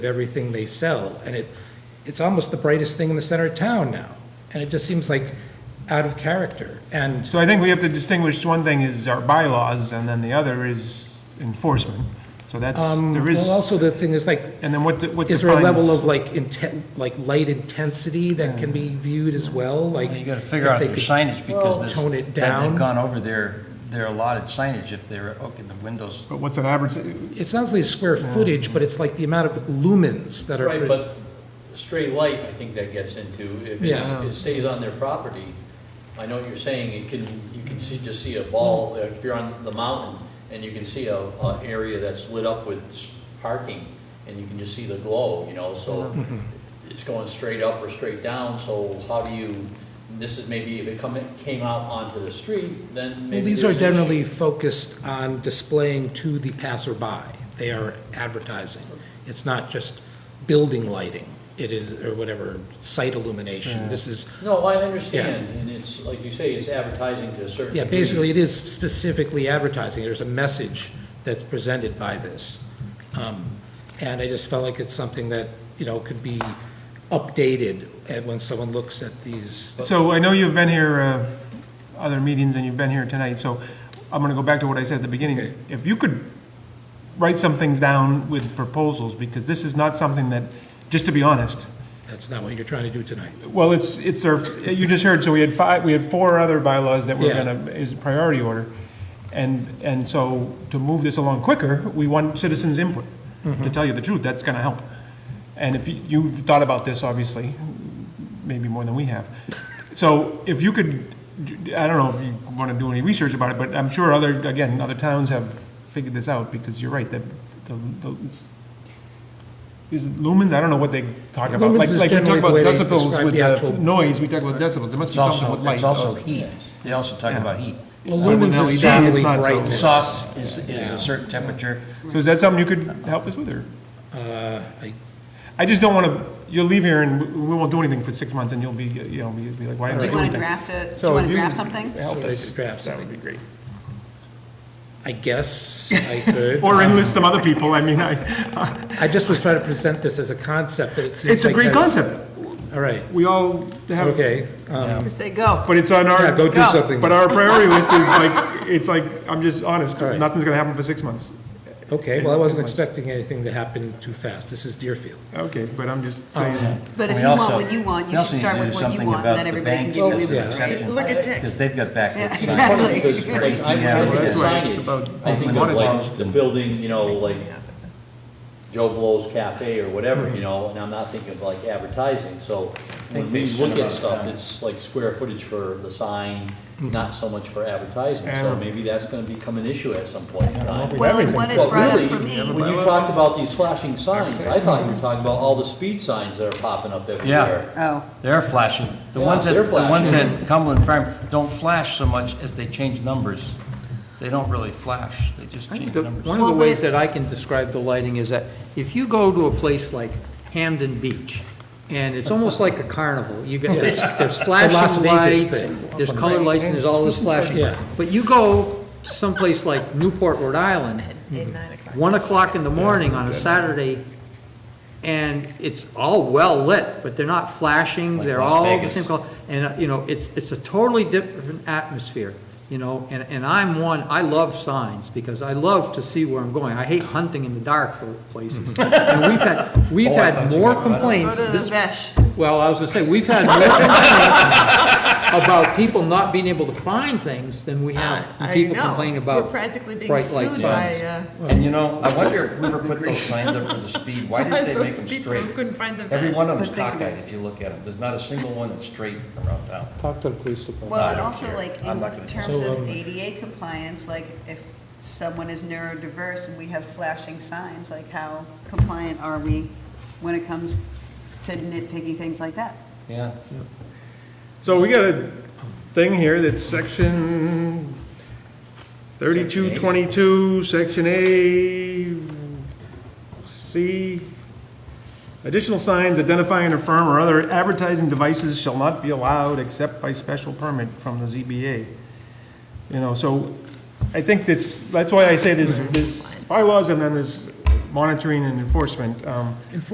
everything they sell, and it, it's almost the brightest thing in the center of town now, and it just seems like out of character, and, So I think we have to distinguish, one thing is our bylaws, and then the other is enforcement. So that's, there is, Um, well, also the thing is like, and then what, de- what defines... is there a level of like intent, like light intensity that can be viewed as well, like? Well, You gotta figure if out they their could signage because this. Tone it they- They've down, gone over their, their allotted signage if they're, okay, the windows. But what's an average, it's not only square footage, but it's like the amount of lumens that are. Right, but stray light, I think that gets into, if Yeah. it's- it stays on their property, I know what you're saying, it can, you can see, just see a Mm. ball, if you're on the mountain, and you can see a, a area that's lit up with s- parking, and you can just see the glow, you know, so Mm-hmm. it's going straight up or straight down, so how do you, this is maybe if it come, in- came out onto the street, then Well, maybe These are there's an issue. generally focused on displaying to the passerby. They are advertising. It's not just building lighting. It is, or whatever, site illumination. This is, No, I understand, and it's, like you say, it's advertising to a certain. yeah, degree. basically, it is specifically advertising. There's a message that's presented by this. Um, And I just felt like it's something that, you know, could be updated and when someone looks at these. so I know you've been here, uh, other meetings, and you've been here tonight, so I'm gonna go back to what I said at the beginning. If you could write some things down with proposals, because this is not something that, just to be honest, That's not what you're trying to do tonight. Well, it's, it's our, you just heard, so we had five, we had four other bylaws that we're Yeah. gonna, is priority order. And, and so to move this along quicker, we want citizens' input. To tell you the truth, that's gonna help. And if you, you thought about this, obviously, maybe more than we have. So if you could, I don't know if you wanna do any research about it, but I'm sure other, again, other towns have figured this out, because you're right, that, the, the, it's, is it lumens? I don't know what they talk about. Lumens Like, is like we talk generally the about way they decibels describe with the uh, actual- noise, we talk about decibels, there must It's be something also, with light. it's also also. heat. They also talk about heat. Well, Uh, with lumens is LED, it's generally not so- brightness. Soft is, is a certain temperature. So is that something you could help us with, or? I- I just don't wanna, you'll leave here and we- we won't do anything for six months and you'll be, you know, you'll be like, why Do you didn't I Do do you want to anything? draft a, do So you if want to you draft could something? Help Should I us, draft that would be great. I guess I could. Or enlist some other people, I mean, I, I just was trying to present this as a concept that it seems like. it's a great has- concept, All right, we all have, okay. um, Say go. but it's on Yeah, go do our, Go. something. but our priority list is like, it's like, I'm just honest, All right. nothing's gonna happen for six months. Okay, well, I wasn't expecting anything to happen too fast. This is Deerfield. Okay, but I'm Oh, just saying. But if We you want also- what you want, we you also should need start to with do what you something want, and about then the everybody can banks give as you an the exception. right? Look at Dick. Because they've got Yeah, backlit signs. exactly. Because, like, I'm Yeah, looking at that's why it's about- signage, I think of like the building, you know, like Joe Blow's Cafe or Mm-hmm. whatever, you know, and I'm not thinking of like advertising, so when they we send look them at out stuff, of town. it's like square footage for the sign, not so much for advertising, Mm-hmm. Yeah. so maybe that's gonna become an issue at some point in time. Well, and what it Well, brought really, up for me, when you talked about these flashing signs, I thought you were talking about all the speed signs that are popping up everywhere. oh, They're flashing. The Yeah, ones that, they're the ones flashing. at Cumberland Farm don't flash so much as they change numbers. They don't really flash, they just I think change the- numbers. One of the Well, ways but- that I can describe the lighting is that if you go to a place like Hamden Beach, and it's almost like a carnival, you get, there's there's Las Vegas flashing lights, thing. there's color lights, and there's all this flashing. Yeah. But you go to someplace like Newport, Rhode Island, Mm-hmm. one o'clock in the morning on a Saturday, and it's all well-lit, but they're not flashing, Like they're Las all the Vegas. same color. And, uh, you know, it's, it's a totally different atmosphere, you know, and, and I'm one, I love signs, because I love to see where I'm going. I hate hunting in the dark for places. And we've had, we've Oh, I thought had you more got better. go complaints, to the this, Vesh. well, I was gonna say, we've had more complaints about people not being able to find things than we have I- I people know. complaining about We're practically being bright light sued signs. by, uh, And you know, I wonder if Hoover put those signs up for the speed, why didn't they make them Those people straight? couldn't find the Every badge, one of them's but they- cockeyed if you look at them. There's not a single one that's straight around town. Talk to the police department. Well, I and don't also care. like I'm not gonna- in terms So, of um, ADA compliance, like if someone is neurodiverse and we have flashing signs, like how compliant are we when it comes to nitpicky things like that? Yeah. So we got a thing here that's section thirty-two twenty-two, section A, C. Additional signs identifying a firm or other advertising devices shall not be allowed except by special permit from the ZBA. You know, so I think that's, that's why I say there's, there's bylaws and then there's monitoring and enforcement. Um,